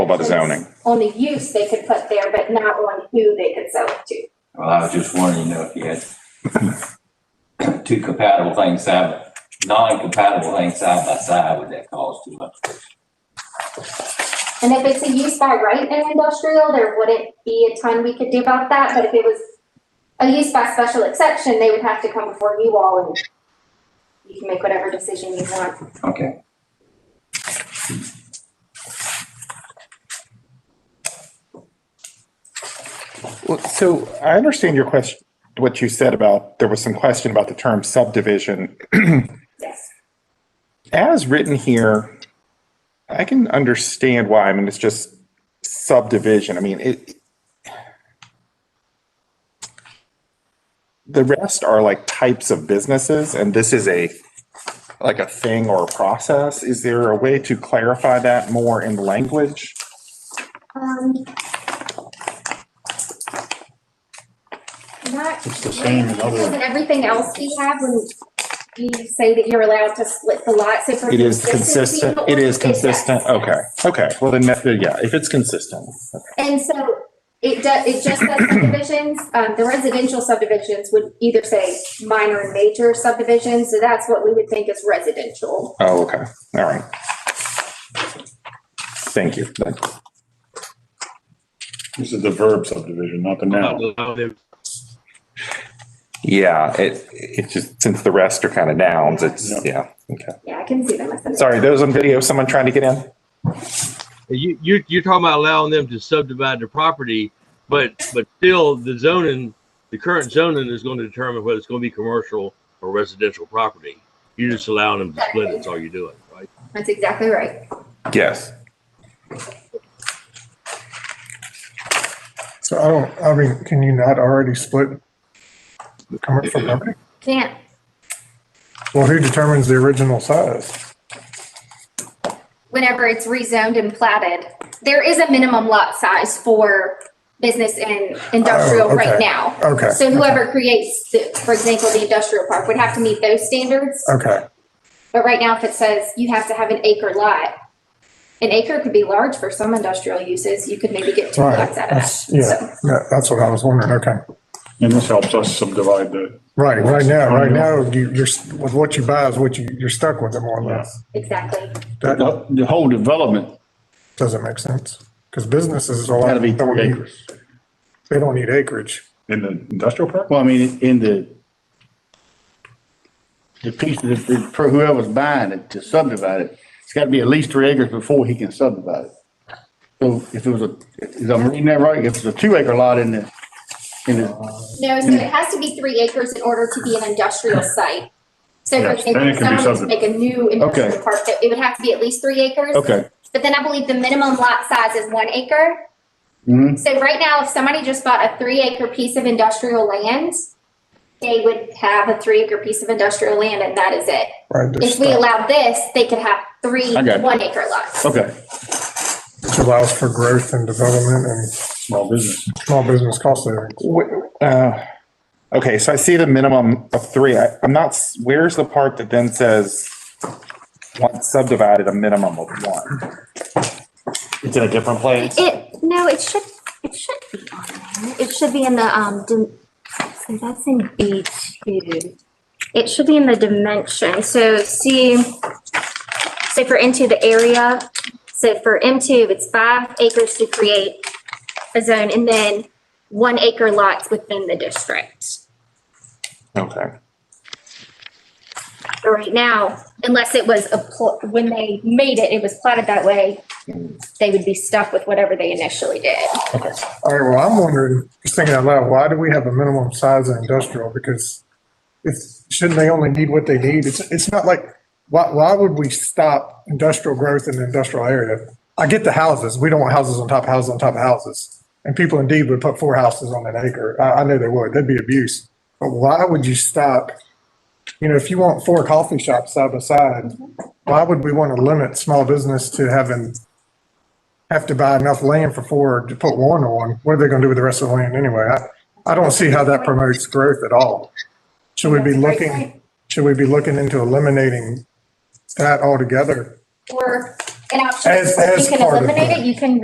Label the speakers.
Speaker 1: about the zoning.
Speaker 2: On the use they could put there, but not on who they could sell it to.
Speaker 3: Well, I was just wondering, you know, if you had two compatible things side, non-compatible things side by side, would that cause too much?
Speaker 2: And if it's a use by right in industrial, there wouldn't be a ton we could do about that, but if it was a use by special exception, they would have to come before you all and you can make whatever decision you want.
Speaker 3: Okay.
Speaker 1: Well, So I understand your question, what you said about, there was some question about the term subdivision.
Speaker 2: Yes.
Speaker 1: As written here, I can understand why, I mean, it's just subdivision, I mean, it. The rest are like types of businesses, and this is a, like a thing or a process. Is there a way to clarify that more in language?
Speaker 2: Um. Not.
Speaker 4: It's the same in other-
Speaker 2: Isn't everything else we have when you say that you're allowed to split the lot, so for.
Speaker 1: It is
Speaker 2: consistency,
Speaker 1: consistent, it is
Speaker 2: it's that.
Speaker 1: consistent, okay, okay, well, then, that- yeah, if it's consistent.
Speaker 2: And so it does, it just says subdivisions, um, the residential subdivisions would either say minor and major subdivisions, so that's what we would think is residential.
Speaker 1: Oh, okay, all right. Thank you. That-
Speaker 4: This is the verb subdivision, not the
Speaker 5: Uh,
Speaker 4: noun.
Speaker 1: Yeah, it, it just, since the rest are kind of nouns, it's, yeah, okay.
Speaker 2: Yeah, I can see them as. an-
Speaker 1: Sorry, those on video, someone trying to get in?
Speaker 6: You, you, you're talking about allowing them to subdivide the property, but, but still the zoning, the current zoning is going to determine whether it's going to be commercial or residential property. You're just allowing them to split it, that's all you're doing, right?
Speaker 2: That's exactly right.
Speaker 1: Yes.
Speaker 7: So I don't, I mean, can you not already split the commercial company?
Speaker 2: Can't,
Speaker 7: Well, who determines the original size?
Speaker 2: whenever it's rezoned and platted, there is a minimum lot size for business and industrial
Speaker 7: Oh,
Speaker 2: right
Speaker 7: okay.
Speaker 2: now.
Speaker 7: Okay,
Speaker 2: So whoever creates, the- for example, the industrial park would have to meet those standards.
Speaker 7: okay,
Speaker 2: But right now, if it says you have to have an acre lot, an acre could be large for some industrial uses. You could maybe get two
Speaker 7: Right,
Speaker 2: lots out of that.
Speaker 7: that's- yeah.
Speaker 2: So,
Speaker 7: No, that's what I was wondering, okay.
Speaker 4: And this helps us subdivide the,
Speaker 7: Right, right now, right now, you, you're, s- with what you buy is what you, you're stuck with it more or less.
Speaker 2: Exactly.
Speaker 7: That
Speaker 4: the the whole development
Speaker 7: doesn't make sense, because businesses are
Speaker 4: had to
Speaker 7: like,
Speaker 4: be
Speaker 7: they don't need-
Speaker 4: acres.
Speaker 7: they don't need acreage.
Speaker 4: In the industrial park?
Speaker 5: Well, I mean, in the, the piece that, that- for whoever's buying it to subdivide it, it's got to be at least three acres before he can subdivide it. So if it was a, is I'm reading that right? If it's a two acre lot in the, in the,
Speaker 2: No, so it has to be three acres in order to be an industrial site. So for
Speaker 4: Yes, then it can
Speaker 2: example, if
Speaker 4: be
Speaker 2: someone wants to
Speaker 4: subdivided.
Speaker 2: make a new industrial
Speaker 5: Okay.
Speaker 2: park, it would have to be at least three acres.
Speaker 5: okay.
Speaker 2: But then I believe the minimum lot size is one acre.
Speaker 7: Mm-hmm.
Speaker 5: Mhm.
Speaker 2: So right now, if somebody just bought a three acre piece of industrial land, they would have a three acre piece of industrial land and that is it.
Speaker 7: Right, they're
Speaker 2: If we
Speaker 7: stuck,
Speaker 2: allow this, they could have three
Speaker 5: I got it.
Speaker 2: one acre lots.
Speaker 5: Okay.
Speaker 7: which allows for growth and development and
Speaker 4: Small business.
Speaker 7: small business cost savings.
Speaker 1: Wh- uh, Okay, so I see the minimum of three. I- I'm not, s- where's the part that then says, once subdivided, a minimum of one? It's in a different place?
Speaker 8: It, no, it should, it should be on there. It should be in the, um, dim- so that's in B two. It should be in the dimension. So see, so for into the area, so for M two, it's five acres to create a zone and then one acre lots within the district.
Speaker 1: Okay.
Speaker 8: But right now, unless it was a, pl- when they made it, it was plotted that way, they would be stuck with whatever they initially did.
Speaker 7: All right, well, I'm wondering, just thinking out loud, why do we have a minimum size in industrial? Because it's, shouldn't they only need what they need? It's, it's not like, why, why would we stop industrial growth in the industrial area? I get the houses, we don't want houses on top of houses on top of houses. And people indeed would put four houses on an acre. I, I know they would, that'd be abuse. But why would you stop? You know, if you want four coffee shops side by side, why would we want to limit small business to having have to buy enough land for four to put one on, what are they gonna do with the rest of the land anyway? I, I don't see how that promotes growth at all. Should we be looking, should we be looking into eliminating that altogether?
Speaker 2: Or an option,
Speaker 7: As-
Speaker 2: is you
Speaker 7: as
Speaker 2: can
Speaker 7: part of
Speaker 2: eliminate
Speaker 7: that.
Speaker 2: it, you can